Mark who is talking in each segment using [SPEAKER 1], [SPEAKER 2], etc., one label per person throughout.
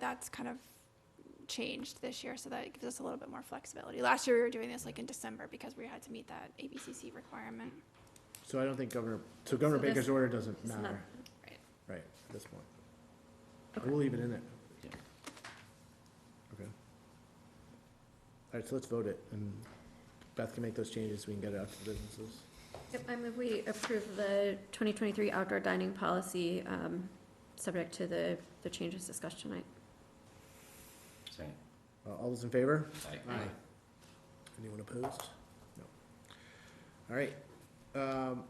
[SPEAKER 1] that's kind of changed this year, so that gives us a little bit more flexibility. Last year, we were doing this like in December because we had to meet that ABCC requirement.
[SPEAKER 2] So I don't think Governor, so Governor
[SPEAKER 3] So this-
[SPEAKER 2] Baker's order doesn't
[SPEAKER 3] it's not-
[SPEAKER 2] matter,
[SPEAKER 1] Right.
[SPEAKER 2] right, at this point.
[SPEAKER 3] Okay.
[SPEAKER 2] We'll leave it in there.
[SPEAKER 4] Yeah.
[SPEAKER 2] Okay. All right, so let's vote it, and Beth can make those changes, we can get it out to the businesses.
[SPEAKER 3] Yep, I move we approve the 2023 outdoor dining policy, um, subject to the, the changes discussed tonight.
[SPEAKER 4] Second.
[SPEAKER 2] Uh, All those in favor?
[SPEAKER 4] Aye.
[SPEAKER 2] Anyone opposed? No. All right. Um,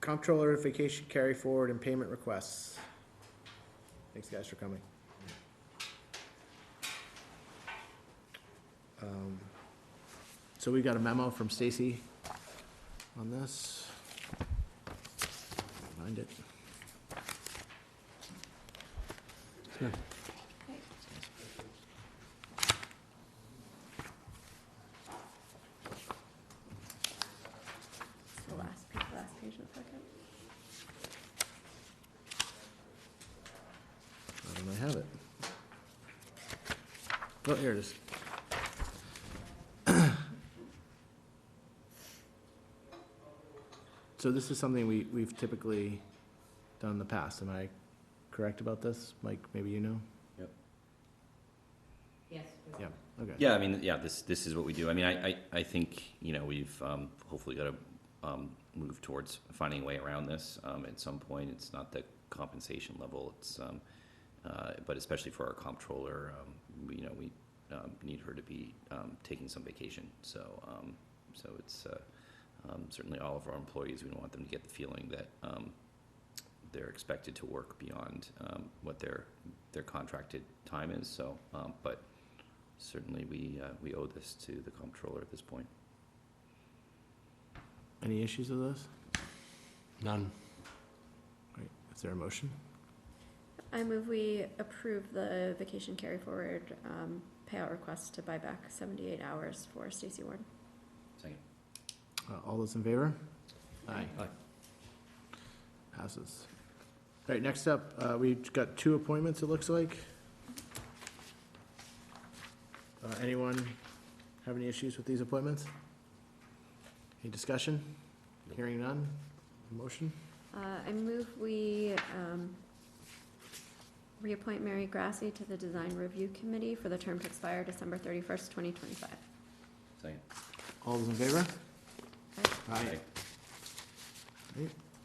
[SPEAKER 2] Comptroller vacation carry forward and payment requests. Thanks, guys, for coming. Um, So we got a memo from Stacy on this. Find it.
[SPEAKER 3] It's The last, pa- last page of the packet.
[SPEAKER 2] Why don't I have it? Oh, here it is. So this is something we, we've typically done in the past. Am I correct about this? Mike, maybe you know?
[SPEAKER 5] Yes.
[SPEAKER 2] Yeah, okay.
[SPEAKER 4] Yeah, I mean, yeah, this, this is what we do. I mean, I, I, I think, you know, we've, um, hopefully got to, um, move towards finding a way around this. Um, at some point, it's not the compensation level, it's, um, uh, but especially for our comptroller, um, we, you know, we, um, need her to be, um, taking some vacation. So, um, so it's, uh, um, certainly all of our employees, we don't want them to get the feeling that, um, they're expected to work beyond, um, what their, their contracted time is, so, um, but certainly we, uh, we owe this to the comptroller at this point.
[SPEAKER 2] Any issues with this?
[SPEAKER 6] None.
[SPEAKER 2] Right, is there a motion?
[SPEAKER 3] I move we approve the vacation carry forward, um, payout request to buy back 78 hours for Stacy Ward.
[SPEAKER 4] Second.
[SPEAKER 2] Uh, All those in favor? Aye.
[SPEAKER 4] Aye.
[SPEAKER 2] Passes. All right, next up, uh, we've got two appointments, it looks like. Uh, Anyone have any issues with these appointments? Any discussion? Hearing none? Motion?
[SPEAKER 3] Uh, I move we, um, reappoint Mary Grassi to the Design Review Committee for the term to expire December 31st, 2025.
[SPEAKER 4] Second.
[SPEAKER 2] All those in favor?
[SPEAKER 3] Aye.
[SPEAKER 2] Aye.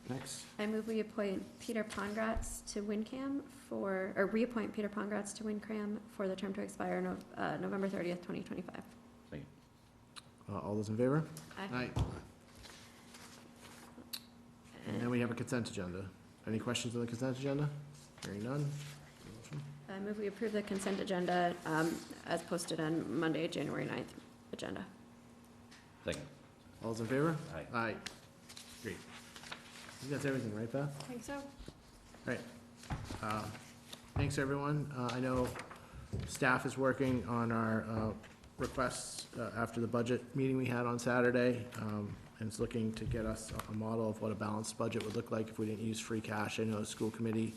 [SPEAKER 2] Next.
[SPEAKER 3] I move we appoint Peter Pongratz to WinCam for, or reappoint Peter Pongratz to WinCam for the term to expire Nov- uh, November thirtieth, twenty twenty-five.
[SPEAKER 2] Uh, All those in favor? Aye. And then we have a consent agenda. Any questions on the consent agenda? Hearing none? Motion?
[SPEAKER 3] I move we approve the consent agenda, um, as posted on Monday, January 9th agenda.
[SPEAKER 4] Second.
[SPEAKER 2] All those in favor?
[SPEAKER 4] Aye.
[SPEAKER 2] Aye. Great. I think that's everything, right, Beth?
[SPEAKER 1] I think so.
[SPEAKER 2] Uh, Thanks, everyone. Uh, I know staff is working on our uh, requests uh, after the budget meeting we had on Saturday, um, and it's looking to get us a- a model of what a balanced budget would look like if we didn't use free cash. I know the school committee,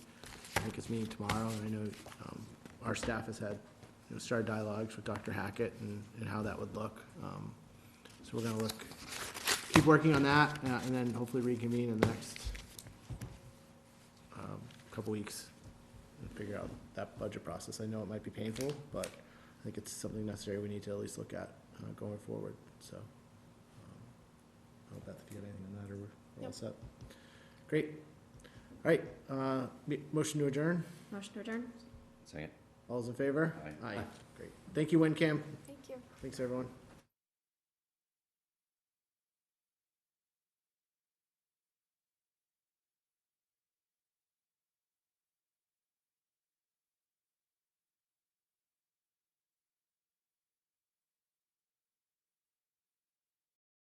[SPEAKER 2] I think it's meeting tomorrow, and I know um, our staff has had, you know, started dialogues with Dr. Hackett and and how that would look. Um, So we're gonna look, keep working on that, uh, and then hopefully reconvene in the next um, couple weeks and figure out that budget process. I know it might be painful, but I think it's something necessary we need to at least look at uh, going forward, so. um, I don't know, Beth, if you got anything on that, or we're we're all
[SPEAKER 1] Nope.
[SPEAKER 2] set. Great. All right, uh, me- motion to adjourn.
[SPEAKER 3] Motion to adjourn?
[SPEAKER 4] Second.
[SPEAKER 2] All's in favor?
[SPEAKER 4] Aye.
[SPEAKER 2] Great. Thank you, WinCam.
[SPEAKER 1] Thank you.
[SPEAKER 2] Thanks, everyone.